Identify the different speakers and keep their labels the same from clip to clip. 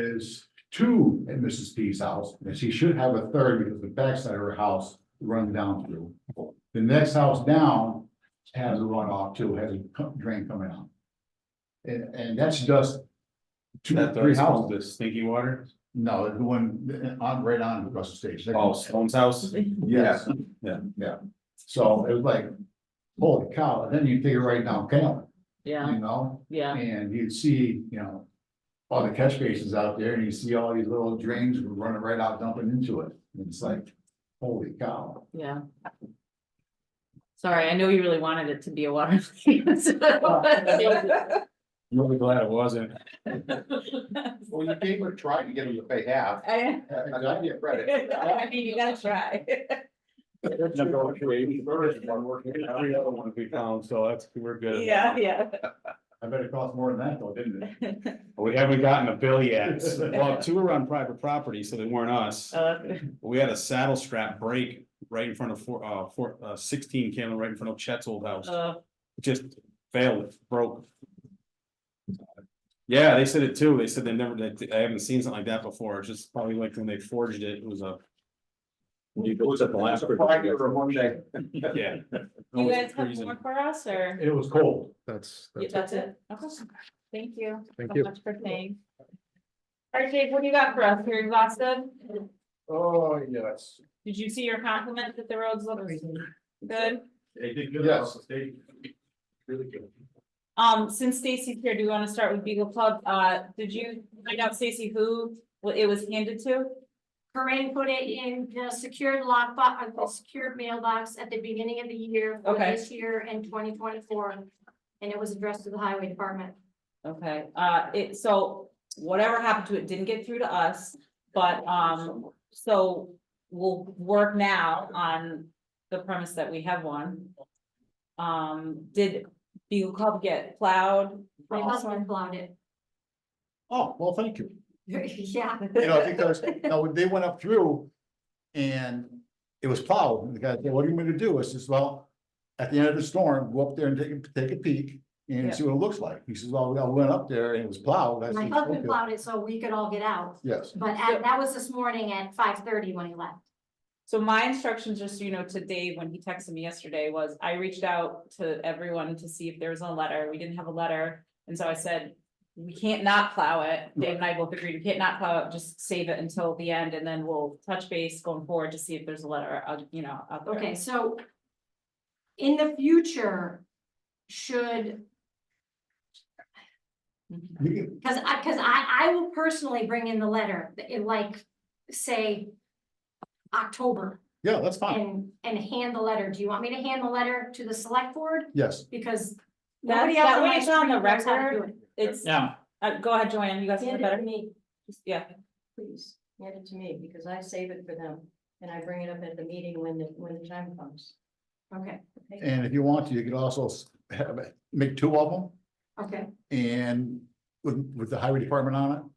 Speaker 1: is two at Mrs. P's house, and she should have a third because the backside of her house runs down through. The next house down has a runoff too, has a co- drain coming out. And, and that's just two,
Speaker 2: That
Speaker 1: three
Speaker 2: third
Speaker 1: houses.
Speaker 2: house, the stinky water,
Speaker 1: No, the one on, right on across the stage.
Speaker 2: oh, Stone's house,
Speaker 1: Yes.
Speaker 2: Yeah.
Speaker 1: Yeah. So it was like, holy cow, and then you figure right now, Calvin,
Speaker 3: Yeah,
Speaker 1: you know,
Speaker 3: yeah,
Speaker 1: and you'd see, you know. All the catch basins out there and you see all these little drains running right out dumping into it. And it's like, holy cow.
Speaker 3: yeah. Sorry, I know you really wanted it to be a water. Well,
Speaker 2: really glad it wasn't.
Speaker 4: Well, you gave her a try to get them to pay half.
Speaker 3: I
Speaker 1: And I get credit.
Speaker 3: I mean, you gotta try.
Speaker 2: Negotiating first, one working, every other one we found, so that's, we're good.
Speaker 3: Yeah, yeah.
Speaker 1: I bet it cost more than that though, didn't it?
Speaker 2: We haven't gotten a bill yet, well, two were on private property, so they weren't us,
Speaker 3: Uh,
Speaker 2: we had a saddle strap break right in front of four, uh, four, uh, sixteen came right in front of Chet's old house.
Speaker 3: uh,
Speaker 2: just failed, it broke. Yeah, they said it too, they said they never, they, I haven't seen something like that before, it's just probably like when they forged it, it was a.
Speaker 4: It
Speaker 2: was at the last-
Speaker 4: Friday or a Monday.
Speaker 2: Yeah.
Speaker 3: You guys have more for us or?
Speaker 1: It was cold.
Speaker 5: That's,
Speaker 3: Yeah,
Speaker 5: that's,
Speaker 3: That's it. Okay. Thank you.
Speaker 5: Thank
Speaker 3: so
Speaker 5: you.
Speaker 3: much For staying. All right, Jake, what do you got for us? You're exhausted?
Speaker 1: Oh, yes.
Speaker 3: Did you see your compliment that the roads look good?
Speaker 2: They did
Speaker 1: good. Yes.
Speaker 2: they. Really good.
Speaker 3: Um, since Stacy's here, do you wanna start with Beagle Club? Uh, did you find out Stacy who what it was handed to?
Speaker 6: Corinne put it in the secured lockbox, the secured mailbox at the beginning of the year. for
Speaker 3: Okay.
Speaker 6: This year and twenty twenty-four, and it was addressed to the highway department.
Speaker 3: Okay, uh, it, so whatever happened to it didn't get through to us, but, um, so we'll work now on the premise that we have one. Um, did Beagle Club get plowed?
Speaker 6: My husband plowed it.
Speaker 1: Oh, well, thank you.
Speaker 6: Yeah,
Speaker 1: You know, because, no, they went up through and it was plowed. And the guy said, what do you want me to do? I says, well, at the end of the storm, go up there and take, a- take a peek and see what it looks like. He says, well, I went up there and it was plowed. I
Speaker 6: my
Speaker 1: says,
Speaker 6: husband
Speaker 1: "Okay."
Speaker 6: plowed it so we could all get out,
Speaker 1: Yes,
Speaker 6: but at- that was this morning at five thirty when he left.
Speaker 3: So my instructions, just so you know, to Dave, when he texted me yesterday, was I reached out to everyone to see if there was a letter, we didn't have a letter, and so I said. We can't not plow it, Dave and I both agreed, we can't not plow it, just save it until the end, and then we'll touch base going forward to see if there's a letter, uh, you know, out there.
Speaker 6: Okay, so. In the future, should
Speaker 3: Mhm.
Speaker 1: we can,
Speaker 6: Cause I, cause I, I will personally bring in the letter, in like, say. October
Speaker 1: yeah, that's fine.
Speaker 6: and, and hand the letter. Do you want me to hand the letter to the select board?
Speaker 1: Yes,
Speaker 6: Because.
Speaker 3: That-
Speaker 6: nobody
Speaker 3: that
Speaker 6: else in
Speaker 3: way
Speaker 6: my
Speaker 3: it's on the
Speaker 6: street knows how to do
Speaker 3: record. It's,
Speaker 2: Yeah.
Speaker 3: uh, go ahead, Joanne, you guys have
Speaker 7: Hand
Speaker 3: the
Speaker 7: it to
Speaker 3: better,
Speaker 7: me,
Speaker 3: yeah,
Speaker 7: please, hand it to me, because I save it for them, and I bring it up at the meeting when the, when the time comes.
Speaker 6: it. Okay,
Speaker 1: and if you want to, you could also s- have, it- make two of them
Speaker 6: okay,
Speaker 1: and with, with the highway department on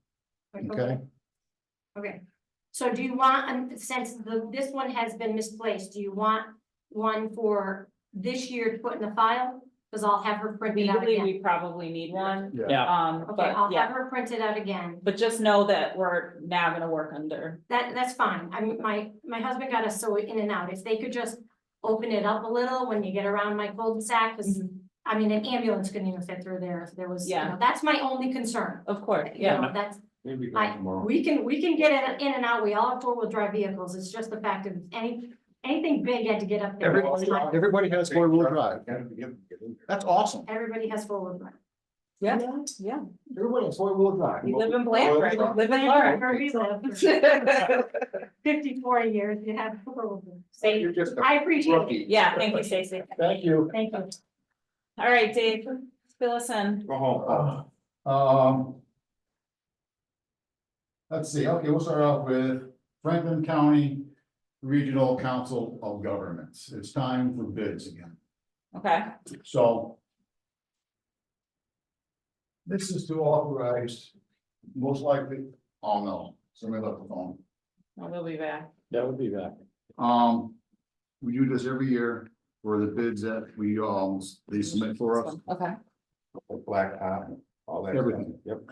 Speaker 1: it, okay?
Speaker 6: okay. So do you want, um, since the, this one has been misplaced, do you want one for this year to put in the file? Cause I'll have her print it out
Speaker 3: legally,
Speaker 6: again.
Speaker 3: we probably need one,
Speaker 1: Yeah.
Speaker 3: um,
Speaker 6: Okay,
Speaker 3: but
Speaker 6: I'll
Speaker 3: yeah,
Speaker 6: have her print it out again.
Speaker 3: but just know that we're now gonna work under.
Speaker 6: That, that's fine. I mean, my, my husband got us so in and out. If they could just open it up a little when you get around my cul-de-sac, because, I mean, an ambulance couldn't even fit through there if there was, you
Speaker 3: Yeah.
Speaker 6: know, that's my only concern.
Speaker 3: Of course,
Speaker 6: You
Speaker 3: yeah.
Speaker 6: know, That's,
Speaker 2: Maybe
Speaker 6: I- we can, we can get in, in and out. We all have four-wheel drive vehicles. It's just the fact of any, anything big had to get up there.
Speaker 1: Everybody, everybody has four-wheel drive. That's awesome.
Speaker 6: Everybody has four-wheel drive.
Speaker 3: Yeah, yeah.
Speaker 1: Everybody has four-wheel drive.
Speaker 3: We live in Blanford, we live in Florida.
Speaker 6: Wherever you live, for Fifty-four years, you have four-wheel drive.
Speaker 4: You're just a
Speaker 6: I appreciate it.
Speaker 4: rookie.
Speaker 3: Yeah, thank you, Stacy.
Speaker 1: Thank you.
Speaker 6: Thank you.
Speaker 3: All right, Dave, fill us in.
Speaker 2: Go home.
Speaker 1: Um. Let's see, okay, we'll start off with Franklin County Regional Council of Governments. It's time for bids again,
Speaker 3: Okay,
Speaker 1: so. This is to authorize, most likely, oh no, somebody left the phone.
Speaker 3: well, we'll be back.
Speaker 2: That would be that.
Speaker 1: Um, we do this every year for the bids that we, um, they submit for us.
Speaker 3: Okay,
Speaker 4: Blacktop, all that. stuff.
Speaker 1: Everything.
Speaker 4: Yep.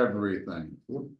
Speaker 1: Everything.